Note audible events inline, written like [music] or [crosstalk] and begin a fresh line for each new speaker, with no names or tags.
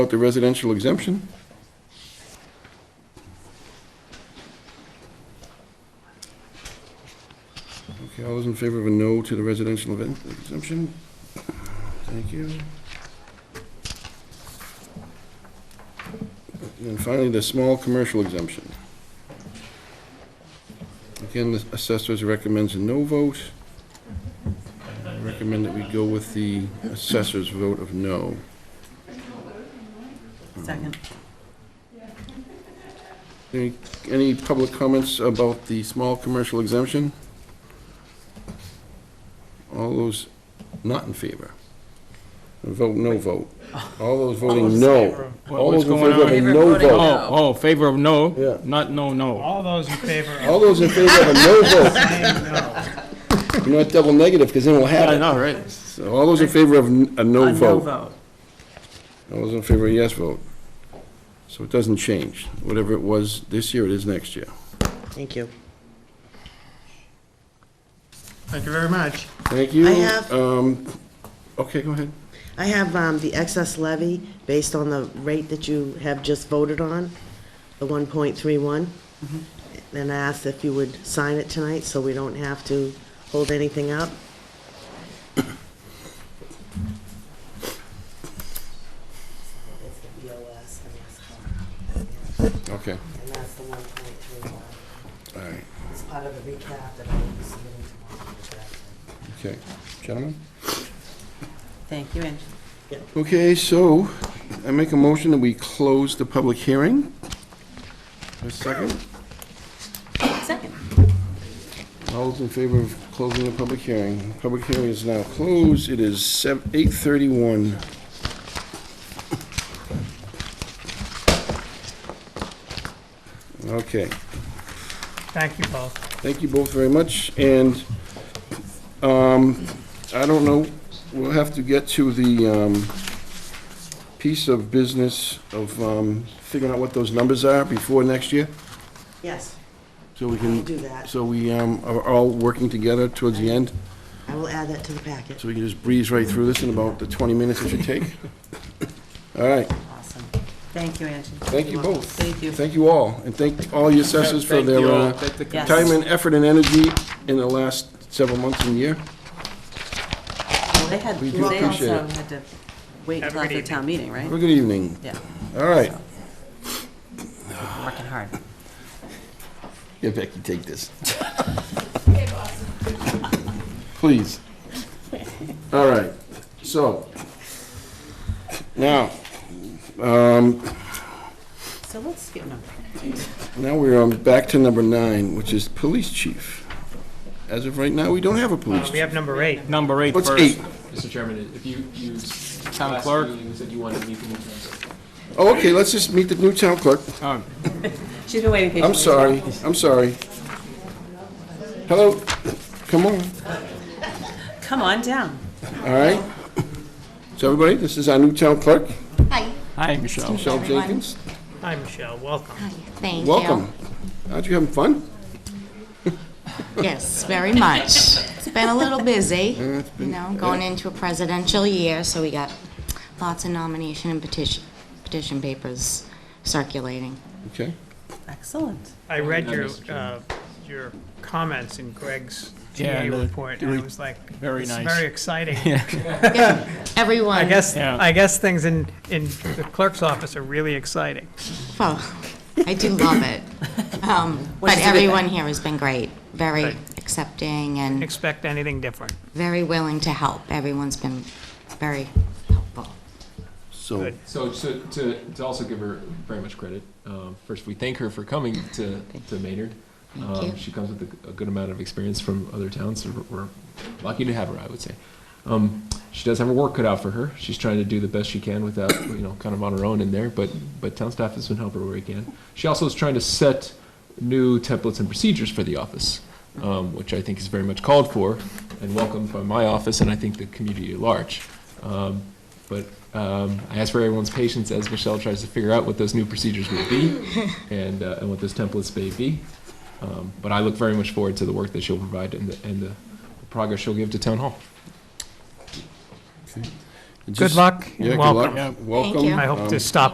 About the residential exemption? Okay, all those in favor of a no to the residential event exemption? Thank you. And finally, the small commercial exemption. Again, the assessors recommends a no vote. I Recommend that we go with the assessor's vote of no.
Second.
Any, any public comments about the small commercial exemption? All those not in favor? Vote no vote. All those voting no.
What-
All
What's
those in
going
favor of
on?
a
Favor
no
voting
vote.
Oh, oh, favor of
Yeah.
no, not no, no.
All those in favor of
All those in favor of a no vote.
saying no.
You're not double negative, because then we'll
I
have it.
know, right?
So all those in favor of n- a
A
no
no
vote.
vote.
All those in favor of a yes vote. So it doesn't change. Whatever it was this year, it is next year.
Thank you.
Thank you very much.
Thank you.
I have-
Um, Okay, go ahead.
I have um, the excess levy based on the rate that you have just voted on, the 1.31. And I asked if you would sign it tonight so we don't have to hold anything up.
Okay,
And that's the 1.31.
all right.
It's part of the recap that I will be submitting tomorrow.
Okay, gentlemen?
Thank you, Angie.
Okay, so I make a motion that we close the public hearing. A second.
Second.
All those in favor of closing the public hearing? Public hearing is now closed. It is sev- 8:31. Okay,
Thank you both.
thank you both very much, and um, I don't know, we'll have to get to the um, piece of business of um, figuring out what those numbers are before next year,
Yes,
so we
I'll
can
do that.
So we um, are all working together towards the end,
I will add that to the packet.
so we can just breeze right through this in about the 20 minutes it should take. [laughs] All right,
Awesome. Thank you, Angie.
thank you both.
Thank you.
Thank you all, and thank all your assessors for
Thank
their
you all.
uh,
Thank the-
Yes.
time and effort and energy in the last several months and year.
Well, They had,
We do
they
appreciate
also
it.
had to wait
Have a
until after
good evening.
town meeting, right?
Have a good evening.
Yeah,
All right.
working hard.
Yeah, Becky, take this. Please. All right, so, now, um,
So let's skip number.
Now we're on back to number nine, which is police chief. As of right now, we don't have a
Uh,
police
We
chief.
have number eight.
Number eight
What's
first.
eight?
Mr. Chairman, if you, you.
Town
last
clerk.
meeting, You said you wanted to meet the new council.
Oh, okay, let's just meet the new town clerk.
Um,
She's been waiting patiently.
I'm sorry, I'm sorry. Hello, come on,
Come on down.
all right? So everybody, this is our new town clerk,
Hi.
Hi, Michelle.
Michelle
Everyone.
Jenkins.
Hi, Michelle, welcome.
Thank you.
Welcome. Aren't you having fun?
Yes, very much. It's been a little busy, you know, going into a presidential year, so we got lots of nomination and petition, petition papers circulating.
Okay,
Excellent.
I read your,
Mr.
uh, your comments in Greg's
Yeah,
TA
the-
report, and I was like,
Very
this is
nice. [laughs]
very exciting.
Everyone.
I guess,
Yeah.
I guess things in, in the clerk's office are really exciting.
Oh, I do
[laughs]
love it. Um,
Which
But
is a good thing.
everyone here has been great, very
Right.
accepting and
Expect anything different.
very willing to help. Everyone's been very helpful.
so,
Good.
So, so to, to also give her very much credit, um, first, we thank her for coming to, to Maynard. Um,
you.
She comes with a, a good amount of experience from other towns, so we're we're lucky to have her, I would say. Um, she does have her work cut out for her. She's trying to do the best she can without, you know, kind of on her own in there, but, but town staff has been helping her where he can. She also is trying to set new templates and procedures for the office, um, which I think is very much called for and welcomed by my office and I think the community at large. Um, but um, I ask for everyone's patience as Michelle tries to figure out what those new procedures will be and, uh, and what those templates may be. Um, but I look very much forward to the work that she'll provide and the, and the progress she'll give to town hall.
Just-
Good luck. and
Yeah, good
welcome.
luck. Welcome.
you.
I hope
Um,
to stop